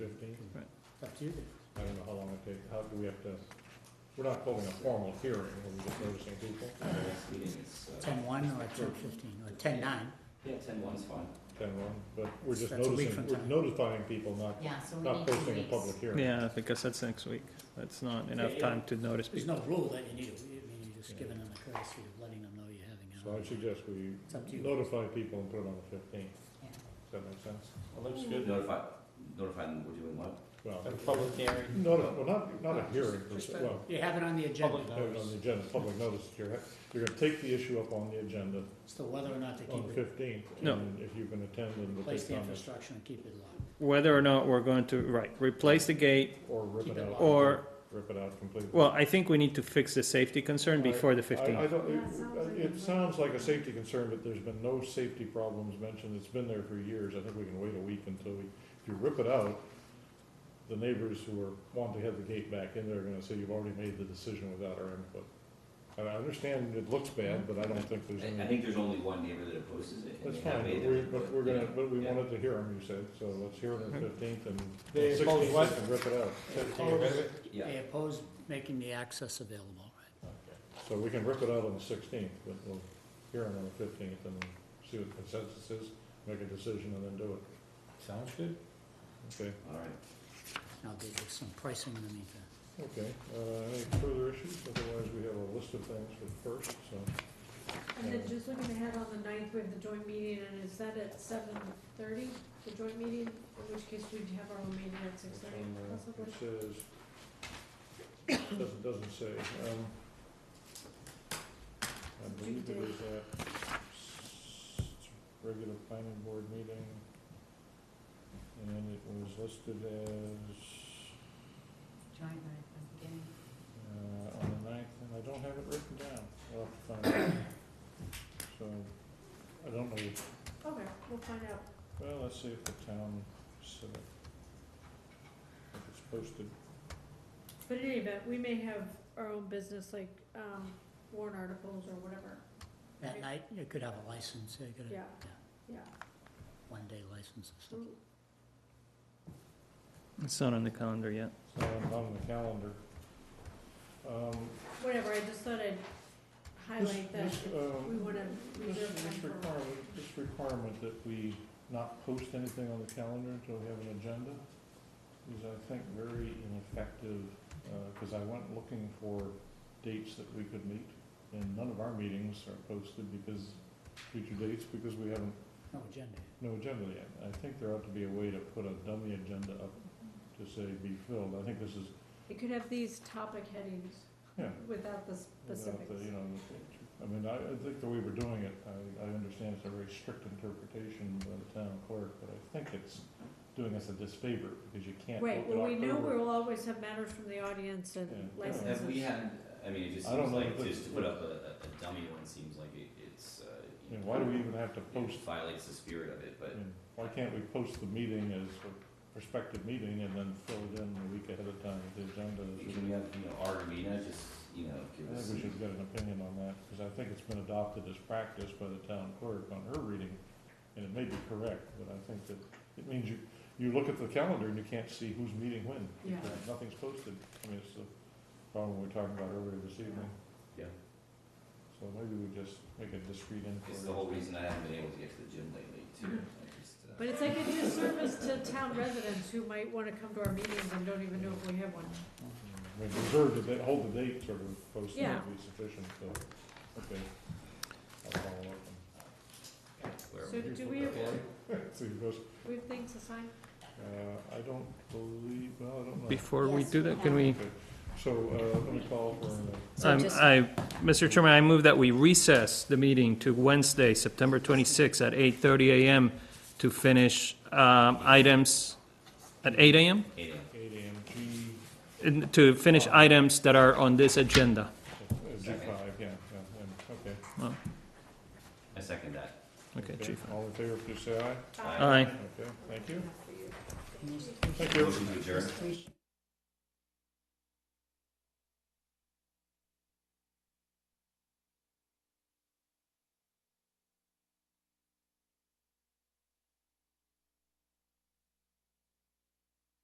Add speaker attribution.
Speaker 1: It's up to you guys.
Speaker 2: I don't know how long it takes, how do we have to, we're not holding a formal hearing, we're just noticing people.
Speaker 3: Uh, the next meeting is, uh,
Speaker 1: Ten one or ten fifteen, or ten nine,
Speaker 3: yeah, ten one's fine.
Speaker 2: Ten one, but we're just
Speaker 1: That's a week from
Speaker 2: noticing, we're
Speaker 1: tonight.
Speaker 2: notifying people, not,
Speaker 4: Yeah, so we
Speaker 2: not
Speaker 4: need two
Speaker 2: posting a
Speaker 4: weeks.
Speaker 2: public hearing.
Speaker 5: Yeah, because that's next week. That's not enough
Speaker 3: Yeah.
Speaker 5: time to notice
Speaker 1: there's
Speaker 5: people.
Speaker 1: no rule that you need, to- I mean, you're just giving them the courtesy of letting them know you're having
Speaker 2: So I
Speaker 1: an hour.
Speaker 2: suggest we
Speaker 1: It's up to you.
Speaker 2: notify people and put it on the fifteenth,
Speaker 4: Yeah.
Speaker 2: does that make sense?
Speaker 6: Well, that's good.
Speaker 3: Notify, notify them we're doing what?
Speaker 2: Well,
Speaker 6: A public hearing.
Speaker 2: noti- well, not, not a uh, hearing, per se. well,
Speaker 1: You have it on the agenda,
Speaker 6: Public
Speaker 2: put it on the agenda, public notice, that you're, you're gonna take the issue up on the agenda
Speaker 1: so whether or not to
Speaker 2: on
Speaker 1: keep
Speaker 2: the
Speaker 1: it,
Speaker 2: fifteenth.
Speaker 5: No.
Speaker 2: And if you can attend and we'll
Speaker 1: place
Speaker 2: take
Speaker 1: the
Speaker 2: comments,
Speaker 1: infrastructure and keep it locked.
Speaker 5: Whether or not we're going to, right, replace the gate
Speaker 2: or rip
Speaker 1: Keep
Speaker 2: it
Speaker 1: it
Speaker 2: out.
Speaker 1: locked.
Speaker 5: or,
Speaker 2: Rip it out completely.
Speaker 5: well, I think we need to fix the safety concern before the
Speaker 2: I, I
Speaker 5: 15th.
Speaker 2: don't,
Speaker 6: Yeah, it sounds like
Speaker 2: it,
Speaker 6: a-
Speaker 2: it sounds like a safety concern, but there's been no safety problems mentioned, it's been there for years, I think we can wait a week until we, if you rip it out, the neighbors who are, want to have the gate back in there are gonna say, you've already made the decision without our input. And I understand it looks bad, but I don't think there's
Speaker 3: I, I
Speaker 2: any,
Speaker 3: think there's only one neighbor that opposes it. and
Speaker 2: that's
Speaker 3: they have
Speaker 2: fine,
Speaker 3: made
Speaker 2: but
Speaker 3: their
Speaker 2: we,
Speaker 3: input,
Speaker 2: but we're gonna,
Speaker 3: yeah,
Speaker 2: but we
Speaker 3: yeah.
Speaker 2: wanted to hear them, you said, so let's hear them on the fifteenth and
Speaker 6: They
Speaker 2: sixteenth,
Speaker 6: oppose what?
Speaker 2: can rip it out.
Speaker 3: Yeah.
Speaker 1: They oppose making the access available, right?
Speaker 2: So we can rip it out on the sixteenth, but we'll hear them on the fifteenth and see what the consensus is, make a decision and then do it.
Speaker 6: Sounds good.
Speaker 2: Okay,
Speaker 3: All right.
Speaker 1: Now, there's some pricing in the meantime.
Speaker 2: okay. Uh, any further issues? Otherwise, we have a list of things for first, so.
Speaker 6: And then just looking ahead on the ninth, we have the joint meeting, and is that at seven thirty, the joint meeting? In which case we'd have our own meeting at six
Speaker 2: which
Speaker 6: thirty,
Speaker 2: one, uh,
Speaker 6: possibly.
Speaker 2: It says, doesn't, doesn't say, um. I believe it is a regular planning board meeting. And it was listed as
Speaker 4: Join right from the beginning.
Speaker 2: uh, on the ninth, and I don't have it written down. I'll have to find it. So, I don't know,
Speaker 6: Okay, we'll find out.
Speaker 2: well, let's see if the town set it. If it's posted,
Speaker 6: But in any event, we may have our own business, like, um, warrant articles or whatever,
Speaker 1: That night, you could have a license, you could
Speaker 6: yeah,
Speaker 1: have
Speaker 6: yeah.
Speaker 1: one-day license or something.
Speaker 6: Mm,
Speaker 5: It's not on the calendar yet.
Speaker 2: it's not on the calendar. Um,
Speaker 6: Whatever, I just thought I'd
Speaker 2: this-
Speaker 6: highlight that.
Speaker 2: this, um,
Speaker 6: we wanna
Speaker 2: This
Speaker 6: reserve time
Speaker 2: this
Speaker 6: for-
Speaker 2: requirement, this requirement that we not post anything on the calendar until we have an agenda is, I think, very ineffective, because I went looking for dates that we could meet, and none of our meetings are posted because, future dates, because we haven't,
Speaker 6: Mm.
Speaker 1: No agenda.
Speaker 2: no agenda yet. I think there ought to be a way to put a dummy agenda up to say be filled. I think this is,
Speaker 6: It could have these topic headings
Speaker 2: yeah,
Speaker 6: without the
Speaker 2: Without the,
Speaker 6: specifics.
Speaker 2: you know, the- I mean, I, I think the way we're doing it, I, I understand it's a very strict interpretation by the town clerk, but I think it's doing us a disfavor because you can't look
Speaker 6: Right,
Speaker 2: at
Speaker 6: well, we know
Speaker 2: October.
Speaker 6: we'll always have matters from the audience and
Speaker 2: Yeah.
Speaker 6: licenses.
Speaker 3: Have we had, I mean, it just
Speaker 2: I don't
Speaker 3: seems
Speaker 2: know
Speaker 3: like,
Speaker 2: if it's-
Speaker 3: just to put up a, a a dummy one seems like it, it's, uh.
Speaker 2: You
Speaker 3: you
Speaker 2: know,
Speaker 3: know,
Speaker 2: why do we even have to post,
Speaker 3: It violates the spirit of it,
Speaker 2: I
Speaker 3: but
Speaker 2: mean, why can't we post the meeting as a prospective meeting and then fill it in a week ahead of time with the agenda? is-
Speaker 3: can we have, you know, our arena just, you know, give
Speaker 2: I
Speaker 3: us.
Speaker 2: think we should get an opinion on that, because I think it's been adopted as practice by the town clerk on her reading, and it may be correct, but I think that, it means you, you look at the calendar and you can't see who's meeting when.
Speaker 6: Yeah.
Speaker 2: because Nothing's posted, I mean, it's the problem we were talking about earlier this evening,
Speaker 3: Yeah,
Speaker 2: so maybe we just make a discreet inquiry.
Speaker 3: it's the whole reason I haven't been able to get to the gym lately too. I just, uh,
Speaker 6: But it's like a disservice to town residents who might wanna come to our meetings and don't even know if we have one.
Speaker 2: We reserve the date, hold the date, sort of, posting
Speaker 6: Yeah.
Speaker 2: would be sufficient, so, okay. I'll follow up
Speaker 3: where-
Speaker 6: So do we have,
Speaker 2: and see who goes.
Speaker 6: we have things assigned?
Speaker 2: Uh, I don't believe, well, I don't know.
Speaker 5: Before we
Speaker 4: Yes,
Speaker 5: do
Speaker 4: we
Speaker 5: that, can
Speaker 4: have.
Speaker 5: we,
Speaker 2: Okay, so, uh, let me call for, an-
Speaker 5: um,
Speaker 4: just-
Speaker 5: I, Mr. Chairman, I move that we recess the meeting to Wednesday, September 26th at 8:30 a.m. to finish um, items, at 8 a.m.?
Speaker 3: Eight AM.
Speaker 2: eight AM, G,
Speaker 5: In- To finish items that are on this agenda.
Speaker 2: uh, G five, yeah, yeah, and, okay.
Speaker 3: I second that.
Speaker 5: Okay, Chief.
Speaker 2: All in favor, please say aye.
Speaker 5: Aye.
Speaker 2: Okay, thank you.
Speaker 1: Can you-
Speaker 2: Thank you.
Speaker 3: Motion to adjourn.